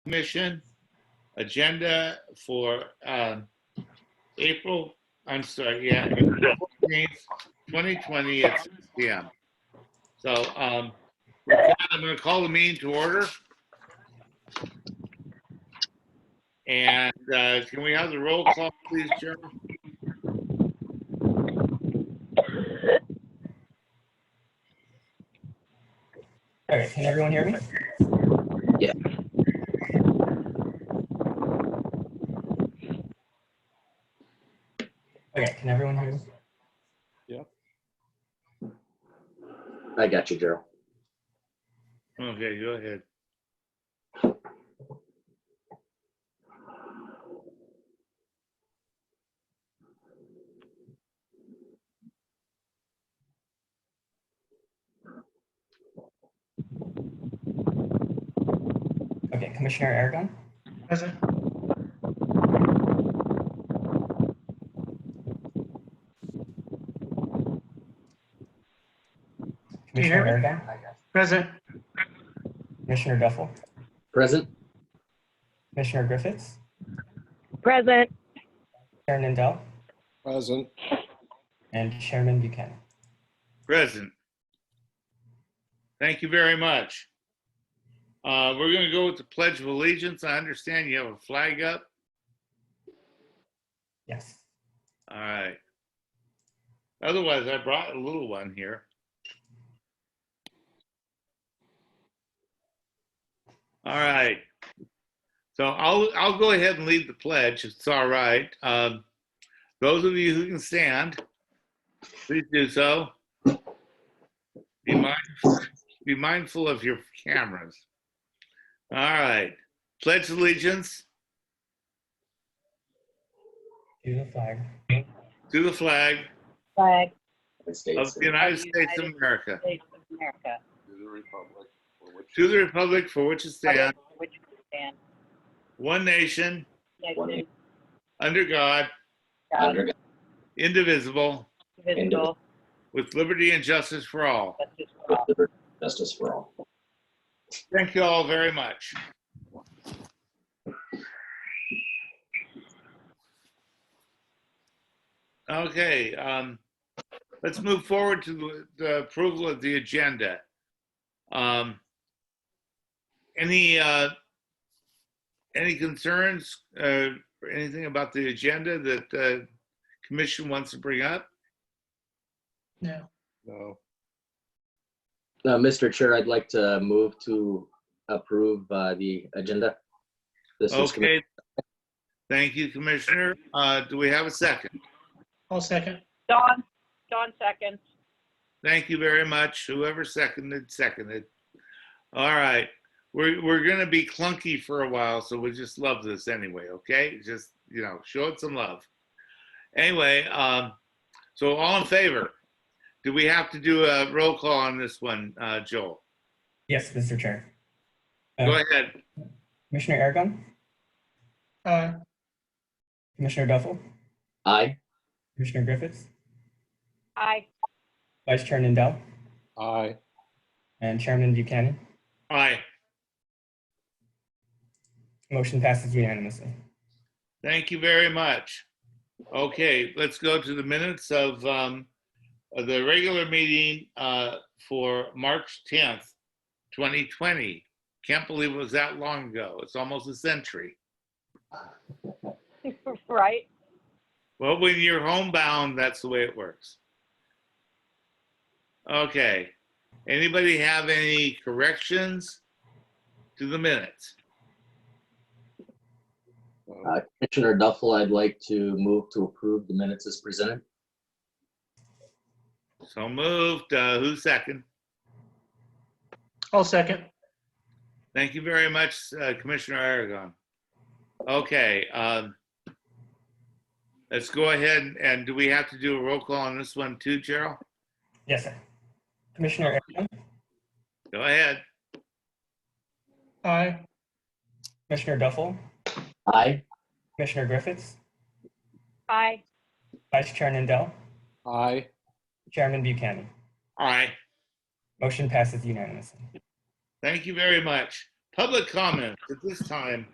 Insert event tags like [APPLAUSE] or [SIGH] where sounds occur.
Commission agenda for um, April, I'm sorry, yeah, April 14th, 2020 at 6 PM. So um, with that, I'm going to call the meeting to order. And uh, can we have the roll call, please, Chair? All right, can everyone hear me? Yeah. Okay, can everyone hear me? I got you, Gerald. Okay, go ahead. Okay, Commissioner Aragon, Present. you hear Commissioner Aragon, Present. Commissioner Duffel, Present? Commissioner Griffiths, Present. Chair Nindell, Present. and Chairman Buchanan. Present. Thank you very much. Uh, We're going to go with the Pledge of Allegiance. I understand you have a flag up. Yes. All right. Otherwise, I brought a little one here. All right. So I'll, I'll go ahead and lead the pledge. It's all right. Um, those of you who can stand, please do so. Be mindful, be mindful of your cameras. All right. Pledge allegiance To the flag to the flag Flag The of states. the United States of America. States of America, To the republic for which To the republic for which it stands, which stands one nation, One nation, under God, God, Under God, indivisible, uh, indivisible, with liberty and justice for all. justice for with all. liberty and Justice for all. Thank you all very much. Okay, um, let's move forward to the- the approval of the agenda. Um, Any, uh, any concerns, uh, or anything about the agenda that the commission wants to bring up? No. no. Uh, Mr. Chair, I'd like to move to approve uh, the agenda. This is Commissioner Okay. Thank you, Commissioner. Uh, Do we have a second? I'll second. Dawn, Dawn seconds. Thank you very much. Whoever seconded, seconded. All right. We're, we're going to be clunky for a while, so we just love this anyway, okay? Just, you know, show it some love. Anyway, um, so all in favor? Do we have to do a roll call on this one, uh, Joel? Yes, Mr. Chair. Go ahead. Commissioner Aragon, Uh, Commissioner Duffel, Aye. Commissioner Griffiths, Aye. [LAUGHS] Vice Chair Nindell, Aye. and Chairman Buchanan. Aye. Motion passes unanimously. Thank you very much. Okay, let's go to the minutes of um, of the regular meeting uh, for March 10th, 2020. Can't believe it was that long ago. It's almost a century. Right? Well, when you're homebound, that's the way it works. Okay. Anybody have any corrections to the minutes? No. Uh, Commissioner Duffel, I'd like to move to approve the minutes as presented. So moved. Uh, Who's second? I'll second. Thank you very much, uh, Commissioner Aragon. Okay, um, let's go ahead and do we have to do a roll call on this one too, Gerald? Yes, sir. Commissioner Aragon, Go ahead. Aye. Commissioner Duffel, Aye. Commissioner Griffiths, Aye. Vice Chair Nindell, Aye. Chairman Buchanan. All right. Motion passes unanimously. Thank you very much. Public comments at this time.